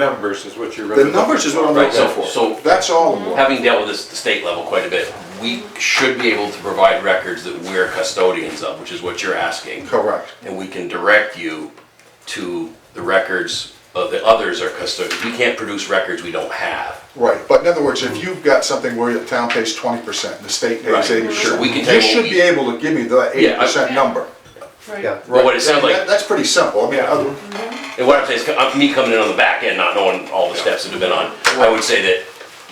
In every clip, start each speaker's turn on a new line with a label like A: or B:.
A: Numbers is what you're.
B: The numbers is what I'm
C: Right,
B: looking
C: so-
B: for.
C: so-
B: That's all I'm looking
C: Having dealt with this at the state level quite a bit, we should be able to provide records that we're custodians of, which is what you're asking.
B: Correct.
C: And we can direct you to the records of the others are custodians. We can't produce records we don't have.
B: Right, but in other words, if you've got something where the town pays twenty percent, the state
C: Right,
B: pays eighty
C: sure,
B: percent,
C: we can
B: you
C: take what
B: should
C: we-
B: be able to give me the
C: Yeah,
B: eighty
C: I-
B: percent number.
D: Right,
C: But what it
B: I
C: sounds
B: mean,
C: like,
B: that- That's pretty simple, I mean, other-
C: and what I'm saying is, uh, me coming in on the back end, not knowing all the steps that have been on, I would say that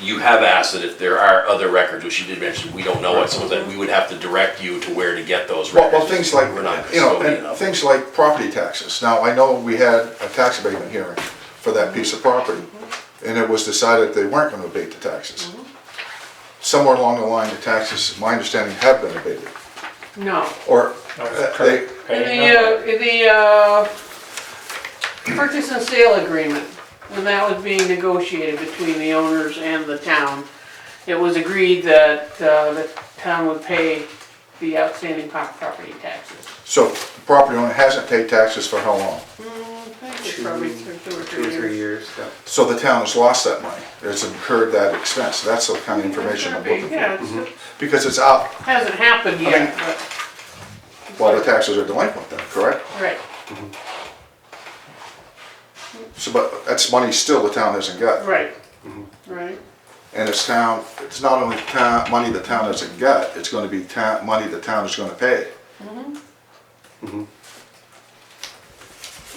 C: you have asked that if there are other records, which you did mention, we don't know what someone's, that we would have to direct you to where to get those
B: well,
C: records.
B: well, things like,
C: We're not
B: you know,
C: custodian
B: and
C: of.
B: things like property taxes. Now, I know we had a tax abatement hearing for that piece of property, and it was decided they weren't gonna abate the taxes. Somewhere along the line, the taxes, my understanding, have been abated,
D: no.
B: or
A: No, it's
B: uh, they,
D: In the, uh, in the, uh, purchase and sale agreement, when that was being negotiated between the owners and the town, it was agreed that, uh, the town would pay the outstanding po- property taxes.
B: so the property owner hasn't paid taxes for how long?
D: I think it's probably two two or
E: Two or
D: three
E: three
D: years.
E: years, yeah.
B: So the town has lost that money, it's incurred that expense, that's the kind of Mm-hmm. information I'm looking for.
D: Yeah, it's-
B: Because it's out
D: hasn't happened yet, but,
B: while the taxes are delinquent then, correct?
D: right,
B: So, but that's money still the town hasn't got.
D: right, right,
B: And it's town, it's not only town, money the town hasn't got, it's gonna be town, money the town is gonna pay. Mm-hmm.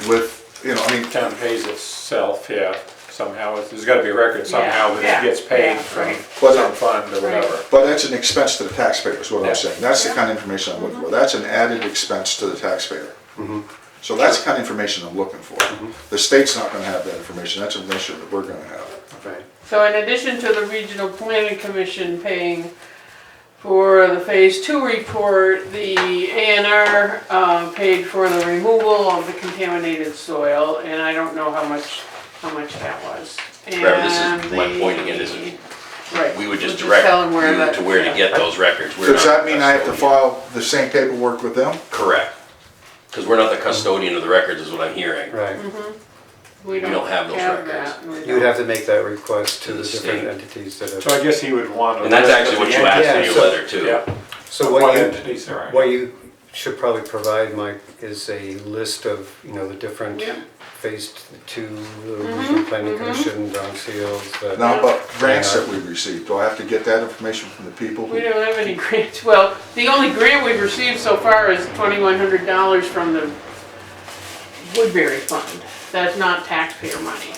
B: With, you know, I mean,
A: Town pays itself, yeah, somehow, It's- there's gotta be a record somehow that
D: Yeah,
A: it gets paid
D: yeah,
A: from
D: right.
A: some fund or whatever.
B: but that's an expense to the taxpayer is what
A: Yeah.
B: I'm saying. That's the kind of information I'm
D: Mm-hmm.
B: looking for. That's an added expense to the taxpayer.
C: Mm-hmm.
B: So that's the kind of information I'm looking for. The state's not gonna have that information, that's information that we're gonna have.
E: Right.
D: So in addition to the Regional Planning Commission paying for the Phase Two report, the A and R, uh, paid for the removal of the contaminated soil, and I don't know how much, how much that was.
C: Remember, this is
D: And
C: my
D: the-
C: point again, is
D: Right.
C: We would just
D: We'll
C: direct
D: tell them
C: you
D: that-
C: to where to
D: yeah.
C: get those records. We're
B: Does
C: not
B: that mean I have to
C: custodian.
B: file the same paperwork with them?
C: Correct. Because we're not the custodian of the records is what I'm hearing.
E: Right.
D: We
C: don't have those records.
D: that, and we
E: You would
D: don't-
E: have to make that request
C: To
E: to
C: the
E: the
C: state.
E: different entities that
A: So
E: have.
A: I guess he would want. a
C: And that's
A: list
C: actually
A: of
C: what
A: the
C: you asked in
E: Yeah,
C: your
E: so-
C: letter too.
A: entities. Yeah,
E: So
A: what
E: what you,
A: entities there
E: what
A: are.
E: you should probably provide, Mike, is a list of, you know, the different
D: Yeah.
E: phase two, the regional planning commission, Don Seals, the.
B: Now, about grants that we received, do I have to get that information from the people?
D: We don't have any grants, well, the only grant we've received so far is twenty-one hundred dollars from the Woodbury Fund. That's not taxpayer money.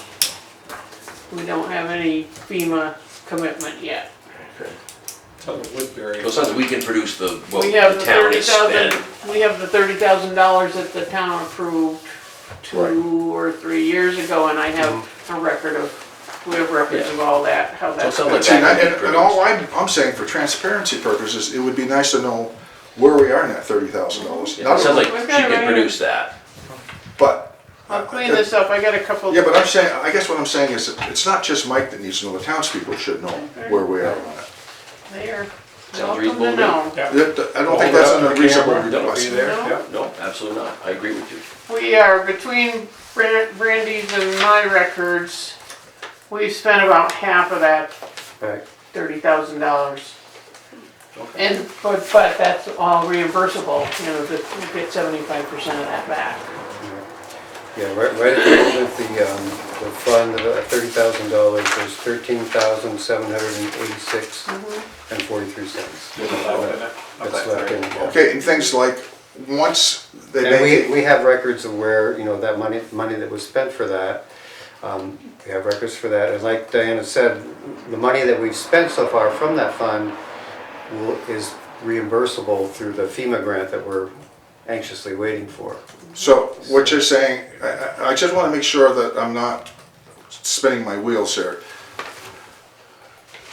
D: We don't have any FEMA commitment yet.
A: So the Woodbury.
C: So it sounds like we can produce the, what
D: We have
C: the
D: the
C: town
D: thirty
C: has spent.
D: thousand, we have the thirty thousand dollars that the town approved two
B: Right.
D: or three years ago, and I have a record of, we have records of all that, how that.
C: So it sounds like
B: See, and,
C: that
B: I-
C: can be
B: and- and
C: produced.
B: all I'm, I'm saying for transparency purposes, it would be nice to know where we are in that thirty thousand dollars.
C: It sounds like
D: We've
C: she
D: got it right
C: can
D: here.
C: produce that.
B: But,
D: I'll clean this up, I got a couple.
B: yeah, but I'm saying, I guess what I'm saying is, that it's not just Mike that needs to know, the townspeople should know where we are on it.
D: There.
C: Sounds
D: Welcome to
C: reasonable to me.
D: know.
A: Yeah.
B: That- I don't
A: Hold
B: think
A: it
B: that's
A: up
B: an
A: to the
B: unreasonable
A: camera, that'll be
B: request.
A: there,
D: No.
A: yeah.
C: No, absolutely not. I agree with you.
D: We are between Bran- Brandy's and my records, we've spent about half of that
E: Right.
D: thirty thousand dollars. And, but, but that's all reimbursable, you know, that we get seventy-five percent of that back.
E: Yeah, right, right at the end of the, um, the fund, the thirty thousand dollars, there's thirteen thousand, seven hundred and eighty-six and forty-three cents.
A: There's a lot in it.
E: That's left in, yeah.
B: Okay, and things like, once they
E: And
B: make
E: we,
B: it,
E: we have records of where, you know, that money, money that was spent for that. um, We have records for that, and like Diana said, the money that we've spent so far from that fund will, is reimbursable through the FEMA grant that we're anxiously waiting for.
B: so what you're saying, I, I- I just wanna make sure that I'm not spinning my wheels here.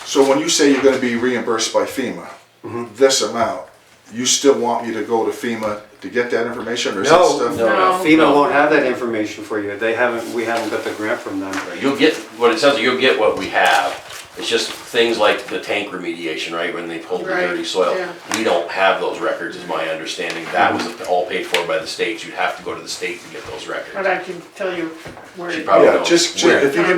B: So when you say you're gonna be reimbursed by FEMA,
E: Mm-hmm.
B: this amount, you still want me to go to FEMA to get that information or is that
E: No,
B: stuff?
E: no,
D: No.
E: FEMA won't have that information for you, they haven't, we haven't got the grant from them.
C: You'll get, what it sounds like, you'll get what we have. It's just things like the tank remediation, right, when they pulled the
D: Right,
C: dirty soil.
D: yeah.
C: We don't have those records, is my understanding. That was all paid for by the state. You'd have to go to the state to get those records.
D: But I can tell you where.
C: She
D: to
C: probably
B: Yeah,
C: knows
B: just, just-
C: where.
B: if you give me